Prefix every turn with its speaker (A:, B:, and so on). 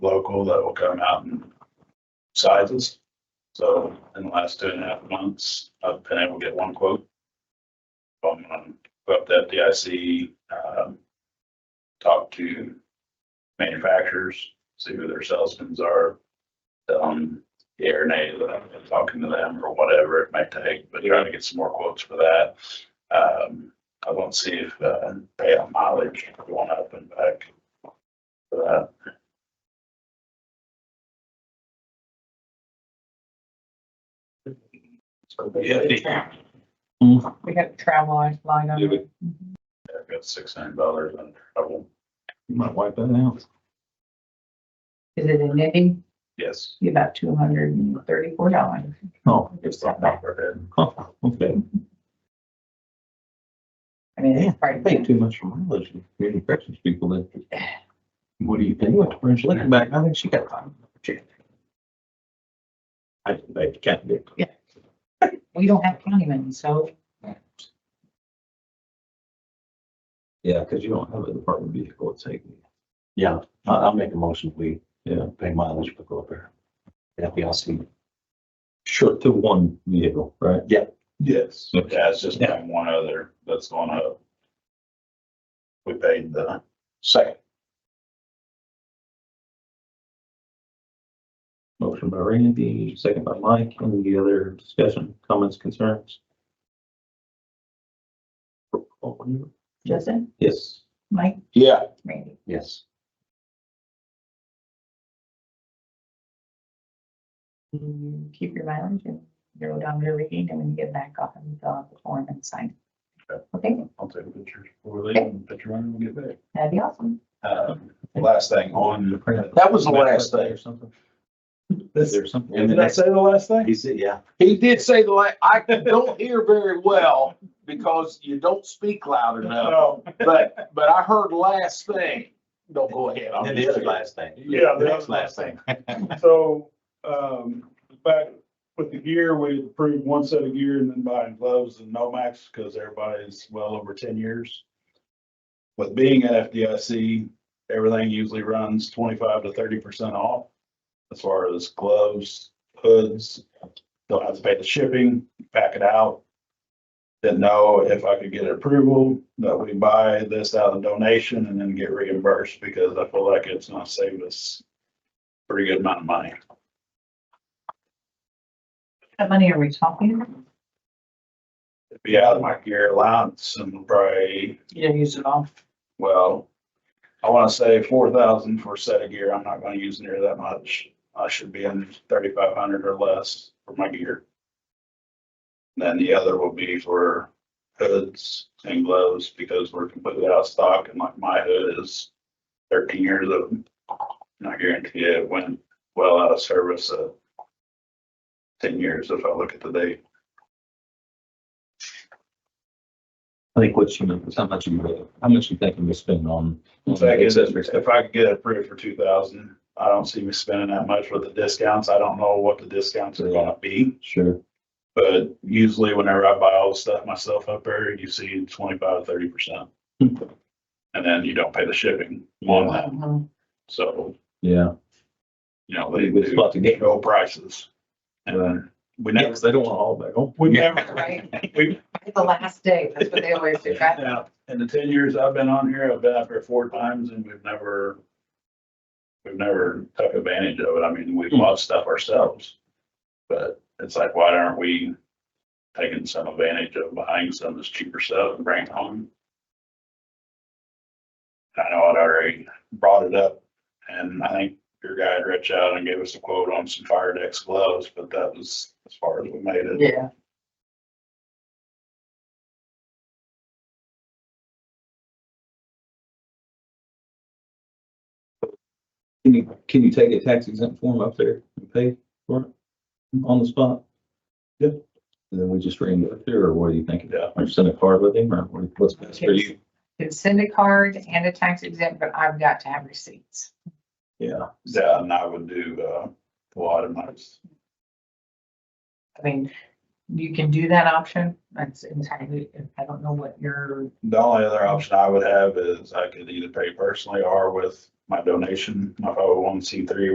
A: local that will come out in sizes. So in the last two and a half months, I've been able to get one quote. From, um, up to FDIC, um, talk to manufacturers, see who their salesmen's are. Um, yeah or nay, that I've been talking to them or whatever it might take, but trying to get some more quotes for that. Um, I want to see if, uh, pay on mileage going up and back. For that. So, yeah, yeah,
B: We had travel line line on
A: Yeah,
B: it.
A: I've got six hundred dollars on trouble,
C: You might wipe that out.
B: Is it in Indy?
A: yes.
B: Be About two hundred and thirty-four dollars.
C: Oh,
A: It's not that bad.
C: oh, okay.
B: I mean,
C: Yeah,
B: it's probably.
C: Pay too much for mileage. and Community corrections people that. What do you think? What the French looking back? I think she got time. She- I, I can't do. it.
B: We don't have county money, so
C: Yeah, because you don't have a department vehicle to take.
D: Yeah, I'll, I'll make a motion, we,
C: Yeah.
D: yeah, pay mileage for go up there. That'd be awesome.
C: Sure, to one vehicle, right?
A: Yes.
C: Okay.
A: Yeah, it's just been one other that's going up. We paid the second,
C: Motion by Randy, second by Mike. Any other discussion, comments, concerns?
B: Justin,
C: Yes.
B: Mike,
D: Yeah.
B: Randy,
D: Yes.
B: you keep your mileage and your odometer reading and when you get back off and fill out the form and sign.
A: Okay.
B: Okay,
A: I'll take a picture before they, even picture running when we get back.
B: that'd be awesome.
A: Um, Last thing on.
D: That was the last thing.
C: Or something. Is
A: This-
C: there something?
A: Did I say the last thing?
D: He said, yeah.
E: He did say the la, I don't hear very well because you don't speak loud enough,
A: No,
E: but, but I heard last thing. Don't go ahead. I'm
D: And the other last thing.
F: Yeah,
D: The
F: the
D: next
F: other
D: last
F: last
D: thing.
F: So, um, back with the gear, we approved one set of gear and then buying gloves and Nomax because everybody's well over ten years. With being at FDIC, everything usually runs twenty-five to thirty percent off as far as gloves, hoods. Don't have to pay the shipping, pack it out. Didn't know if I could get approval that we buy this out of donation and then get reimbursed because I feel like it's not saving us pretty good amount of money.
B: What money are we talking?
F: It'd be out of my gear allowance and probably,
B: You don't use it all.
F: well, I want to say four thousand for a set of gear. I'm not going to use near that much. I should be in thirty-five hundred or less for my gear. Then the other will be for hoods and gloves because we're completely out of stock and like my hood is thirteen years of, and I guarantee it went well out of service at ten years if I look at the date.
C: I think what you meant was how much you, how much you think you spend on.
F: If I could, if I could get it approved for two thousand, I don't see me spending that much with the discounts. I don't know what the discounts are gonna be.
C: Sure.
F: But usually whenever I buy all the stuff myself up there, you see twenty-five, thirty percent. And then you don't pay the shipping on that.
B: Mhm.
F: So,
C: Yeah.
F: you know, they
C: Good spot to
F: do
C: get.
F: no prices. And then we never,
C: They don't want all back home.
F: we never,
B: Right,
F: we,
B: the last day, that's what they always do, right?
F: Yeah, in the ten years I've been on here, I've been up here four times and we've never, we've never took advantage of it. I mean, we bought stuff ourselves. But it's like, why aren't we taking some advantage of buying some of this cheaper stuff and bringing it home? I know I'd already brought it up and I think your guy had reached out and gave us a quote on some fire decks gloves, but that was as far as we made it.
B: Yeah.
C: Can you, can you take a tax exempt form up there and pay for it on the spot? Yep. And then we just reimburse it there, or what do you think?
F: Yeah.
C: Or send a card with him, or what- what's best for you?
B: Can send a card and a tax exempt, but I've got to have receipts.
C: Yeah.
F: Yeah, and I would do, uh, a lot of nights.
B: I mean, you can do that option, that's entirely, I don't know what your
F: The only other option I would have is I could either pay personally or with my donation, my 501c3